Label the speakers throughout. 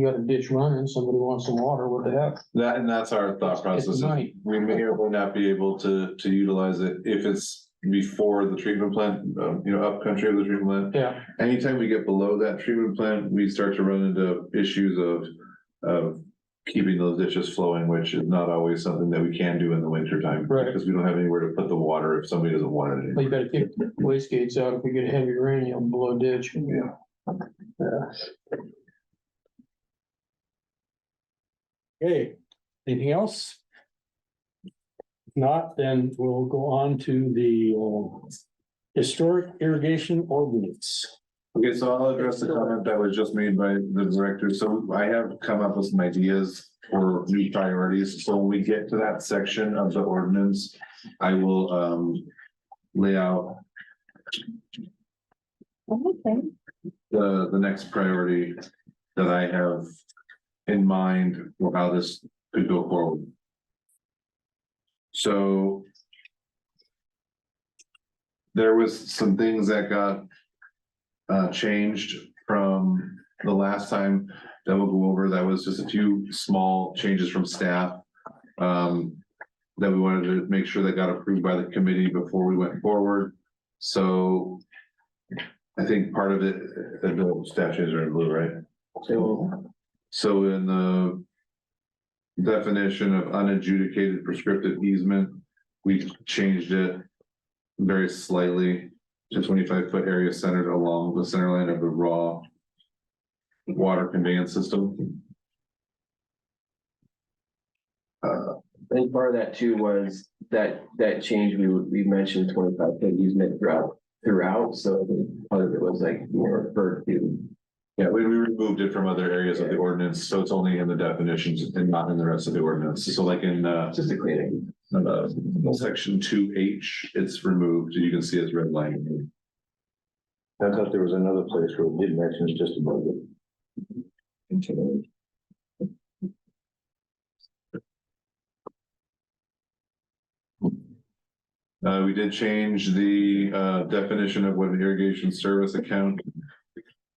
Speaker 1: You got a ditch running, somebody wants some water, what the heck?
Speaker 2: That, and that's our thought
Speaker 1: It's
Speaker 2: process. is
Speaker 1: night.
Speaker 2: We may or may not be able to, to utilize it if it's before the treatment plant, um, you know, up country of the treatment plant.
Speaker 1: Yeah,
Speaker 2: Anytime we get below that treatment plant, we start to run into issues of, of keeping those ditches flowing, which is not always something that we can do in the winter time.
Speaker 1: Right.
Speaker 2: Because we don't have anywhere to put the water if somebody doesn't want it.
Speaker 1: but
Speaker 2: anymore.
Speaker 1: you gotta keep waste gates out. If we get heavy rain, you'll blow a ditch.
Speaker 2: Yeah.
Speaker 1: Yeah.
Speaker 3: Okay, anything else? If Not, then we'll go on to the uh, historic irrigation ordinance.
Speaker 2: Okay, so I'll address the comment that was just made by the director. So I have come up with some ideas for new priorities. So when we get to that section of the ordinance, I will, um, lay out
Speaker 4: Okay,
Speaker 2: the, the next priority that I have in mind for how this could go forward. So there was some things that got uh, changed from the last time that we'll go over. That was just a few small changes from staff um, that we wanted to make sure that got approved by the committee before we went forward. So I think part of it, uh, the little statues are in blue, right? So. So in the. Definition of unadjudicated prescriptive easement, we changed it. Very slightly to twenty-five foot area centered along the center line of the raw. Water conveyance system. Uh,
Speaker 5: I think part of that too was that, that change, we, we mentioned twenty-five foot easement throughout, throughout, so part of it was like more referred to.
Speaker 2: yeah, we, we removed it from other areas of the ordinance, so it's only in the definitions and not in the rest of the ordinance. So like in, uh.
Speaker 5: It's just a cleaning.
Speaker 2: Uh, section two H, it's removed, you can see it's redlined.
Speaker 6: I thought there was another place where we did mention it just about it.
Speaker 2: Uh, we did change the, uh, definition of what an irrigation service account.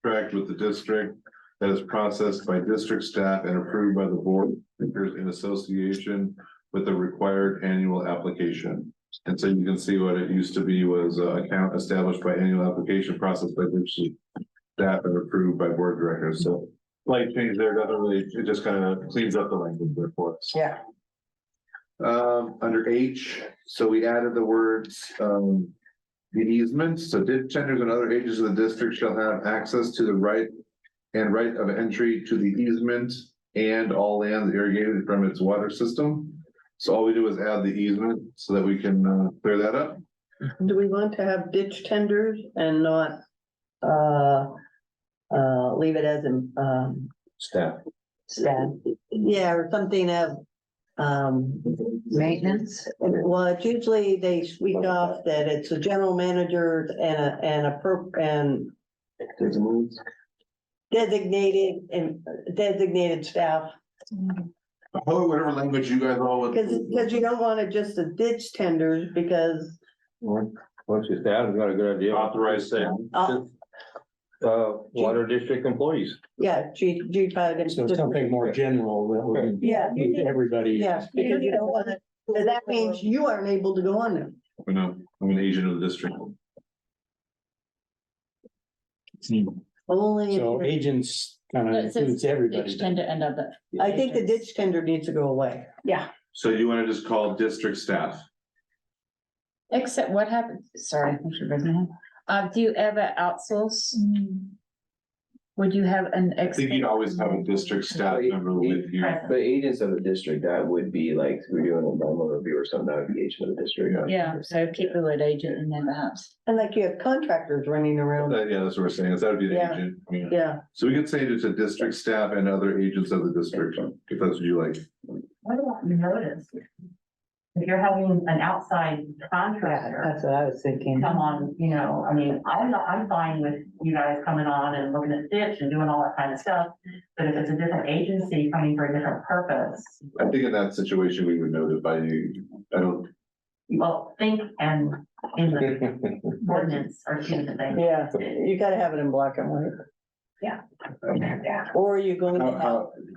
Speaker 2: Tracked with the district that is processed by district staff and approved by the board in association with the required annual application. And so you can see what it used to be was uh account established by annual application processed by district staff and approved by board directors. So light change there, doesn't really, it just kind of cleans up the language there for us.
Speaker 4: Yeah.
Speaker 2: Um, under H, so we added the words, um. The easements, so ditch tenders and other agents of the district shall have access to the right. And right of entry to the easement and all lands irrigated from its water system. So all we do is add the easement so that we can, uh, clear that up.
Speaker 7: Do we want to have ditch tenders and not, uh, uh, leave it as, um,
Speaker 6: Staff,
Speaker 7: staff? Yeah, or something of, um,
Speaker 4: maintenance,
Speaker 7: well, it's usually they sweep off that it's a general manager and a, and a per, and
Speaker 5: There's moves.
Speaker 7: designated and designated staff.
Speaker 2: Oh, whatever language you guys all would.
Speaker 7: Cause, cause you don't want to just a ditch tenders because,
Speaker 6: once, once your staff has got a good idea.
Speaker 2: Authorized staff.
Speaker 7: uh,
Speaker 6: Uh, water district employees.
Speaker 7: yeah, G, G five.
Speaker 3: So something more general that would
Speaker 7: Yeah, you
Speaker 3: include
Speaker 7: need-
Speaker 3: everybody.
Speaker 7: yeah, because you don't want to, that means you aren't able to go on them.
Speaker 2: You know, I'm an agent of the district.
Speaker 7: Only. if
Speaker 3: So
Speaker 7: you're-
Speaker 3: agents kind of
Speaker 8: It says
Speaker 3: includes everybody.
Speaker 8: Ditch tender end of it.
Speaker 7: I think the ditch tender needs to go away.
Speaker 8: Yeah,
Speaker 2: So you wanna just call district staff?
Speaker 8: except what happens, sorry, I should raise my hand. Uh, do you ever outsource?
Speaker 7: Mm.
Speaker 8: Would you have an
Speaker 2: I
Speaker 8: ex?
Speaker 2: think you'd always have a district staff member with you.
Speaker 5: But agents of the district, that would be like, we're doing an environmental review or something, that would be agent of the district.
Speaker 8: Yeah, so keep the word agent in there perhaps.
Speaker 7: And like you have contractors running around.
Speaker 2: That- Uh, yeah, that's what we're saying, is that would be the
Speaker 7: Yeah.
Speaker 2: agent. yeah.
Speaker 7: Yeah,
Speaker 2: So we could say it's a district staff and other agents of the district, if that's what you like.
Speaker 9: What about notice? If you're having an outside
Speaker 4: yeah,
Speaker 9: contractor
Speaker 4: that's what I was thinking.
Speaker 9: come on, you know, I mean, I'm not, I'm fine with you guys coming on and looking at ditch and doing all that kind of stuff. But if it's a different agency coming for a different purpose,
Speaker 2: I think in that situation, we would notify you. I don't,
Speaker 9: well, think and in the ordinance or two things.
Speaker 7: yeah, you gotta have it in black and white.
Speaker 10: Yeah.
Speaker 7: Or are you going to
Speaker 5: How,
Speaker 7: have?
Speaker 5: how,